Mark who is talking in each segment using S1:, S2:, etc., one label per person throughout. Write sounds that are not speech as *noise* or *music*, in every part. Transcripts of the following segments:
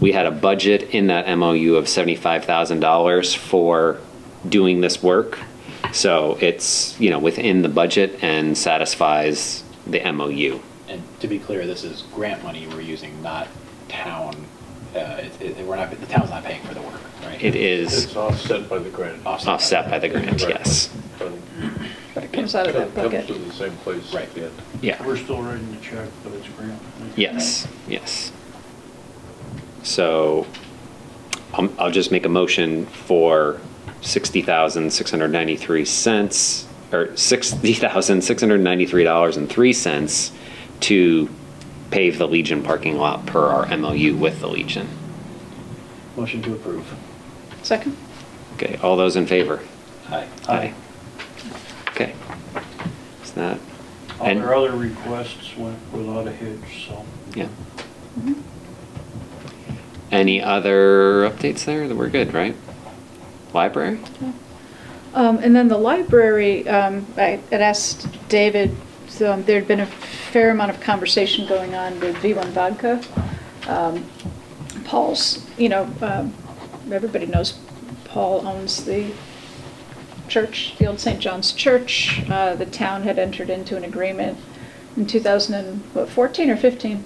S1: we had a budget in that MOU of $75,000 for doing this work. So it's, you know, within the budget and satisfies the MOU.
S2: And to be clear, this is grant money we're using, not town, uh, it- it- we're not, the town's not paying for the work, right?
S1: It is
S3: It's offset by the grant.
S2: Offset.
S1: offset by the grant, yes.
S4: But it comes out of that
S3: Comes
S4: bucket.
S3: to the same place
S2: Right.
S3: at the end.
S1: Yeah,
S5: We're still writing the check, but it's grant.
S1: yes, yes. So I'm- I'll just make a motion for 60,693 cents, or $60,693.03 to pave the Legion parking lot per our MOU with the Legion.
S2: Motion to approve.
S4: Second?
S1: Okay, all those in favor?
S2: Aye.
S1: Okay. Is that?
S5: All
S1: and-
S5: their Uh, other requests went without a hitch, so.
S1: Yeah. Mm-hmm. Any other updates there? That We're good, right? Library?
S4: Um, and then the library, um, I had asked David, so there'd been a fair amount of conversation going on with V1 Vodka. Um, Paul's, you know, um, everybody knows Paul owns the church, the old St. John's Church. Uh, the town had entered into an agreement in 2014 or 15?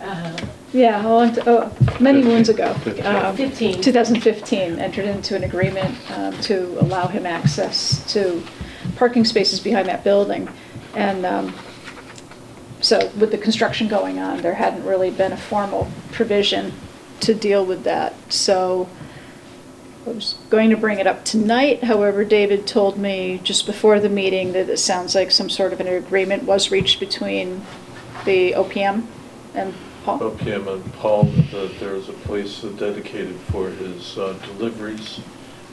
S6: uh,
S4: Yeah, a long t- oh, many moons ago. um,
S6: 15.
S4: 2015, entered into an agreement um, to allow him access to parking spaces behind that building. And um, so with the construction going on, there hadn't really been a formal provision to deal with that. So I was going to bring it up tonight, however, David told me just before the meeting that it sounds like some sort of an agreement was reached between the OPM and Paul.
S3: OPM and Paul, that there's a place dedicated for his uh, deliveries,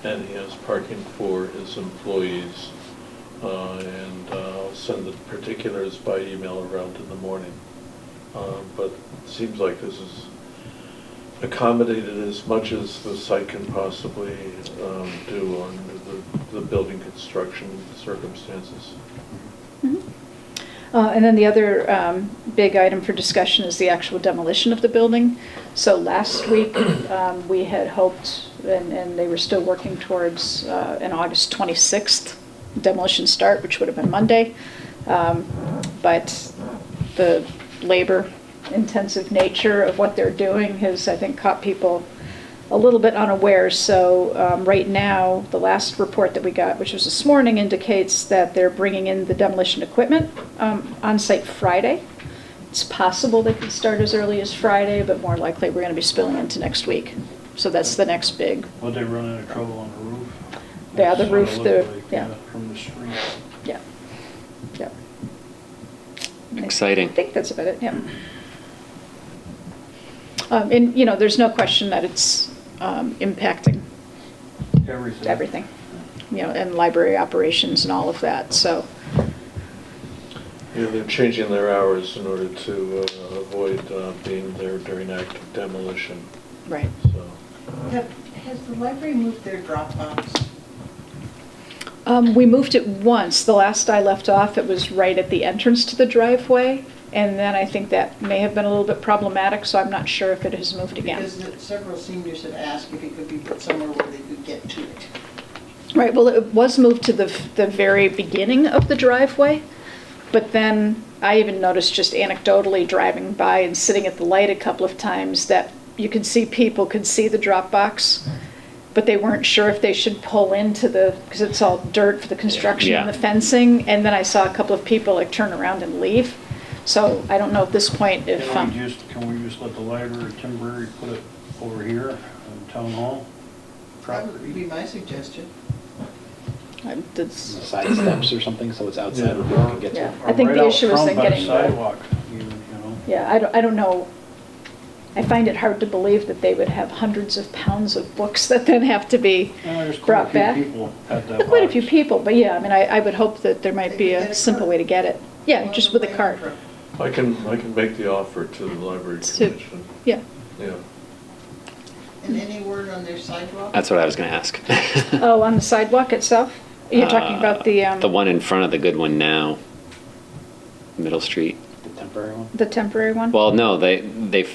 S3: and he has parking for his employees. Uh, And uh, I'll send the particulars by email around in the morning. Uh, But it seems like this is accommodated as much as the site can possibly um, do on the, the building construction circumstances.
S4: Mhm. Uh, And then the other um, big item for discussion is the actual demolition of the building. So last week, um, we had hoped, and and they were still working towards uh, an August 26th demolition start, which would have been Monday. Um, But the labor-intensive nature of what they're doing has, I think, caught people a little bit unaware. So um, right now, the last report that we got, which was this morning, indicates that they're bringing in the demolition equipment um, on site Friday. It's possible they could start as early as Friday, but more likely, we're going to be spilling into next week. So that's the next big,
S5: Would they run into trouble on the roof?
S4: Yeah, the
S5: That's what it
S4: roof,
S5: looked
S4: the-
S5: like,
S4: yeah.
S5: From the street.
S4: yeah. Yep.
S1: Exciting.
S4: I think that's about it, yeah. Um, And, you know, there's no question that it's um, impacting
S5: Everything.
S4: everything, you know, and library operations and all of that, so,
S3: You know, they're changing their hours in order to uh, avoid uh, being there during active demolition,
S4: right.
S3: so.
S6: Have- Has the library moved their Dropbox?
S4: Um, we moved it once. The last I left off, it was right at the entrance to the driveway. And then I think that may have been a little bit problematic, so I'm not sure if it has moved again.
S6: Because the- several seniors had asked if it could be put somewhere where they could get to it.
S4: Right, well, it was moved to the, the very beginning of the driveway. But then I even noticed just anecdotally driving by and sitting at the light a couple of times that you could see people could see the drop box, but they weren't sure if they should pull into the, because it's all dirt for the construction and
S1: Yeah.
S4: the fencing. And then I saw a couple of people like turn around and leave. So I don't know at this point if,
S5: Can we
S4: um,
S5: just, can we just let the library temporarily put it over here in town hall?
S6: That would be
S5: property?
S6: my suggestion.
S4: I-
S2: Some
S4: that's-
S2: Side steps or something, so it's outside where people can get
S4: Yeah.
S2: to.
S4: I think
S5: Or right
S4: the
S5: out
S4: issue is
S5: front
S4: then
S5: by the
S4: getting the-
S5: Sidewalk, even, you know?
S4: yeah, I don't, I don't know. I find it hard to believe that they would have hundreds of pounds of books *laughs* that then have to be
S5: Yeah, there's quite a
S4: brought
S5: few
S4: back.
S5: people at that
S4: Quite a few
S5: box.
S4: people, but yeah, I mean, I, I would hope that there might be a simple way to get it. Yeah, just with a cart.
S3: I can, I can make the offer to the library
S4: To-
S3: commission,
S4: Yeah.
S3: yeah.
S6: And any word on their sidewalk?
S1: That's what I was going to ask.
S4: *laughs* Oh, on the sidewalk itself? You're talking about the,
S1: Uh,
S4: um,
S1: The one in front of the good one now, Middle Street.
S2: The temporary one?
S4: The temporary one?
S1: Well, no, they, they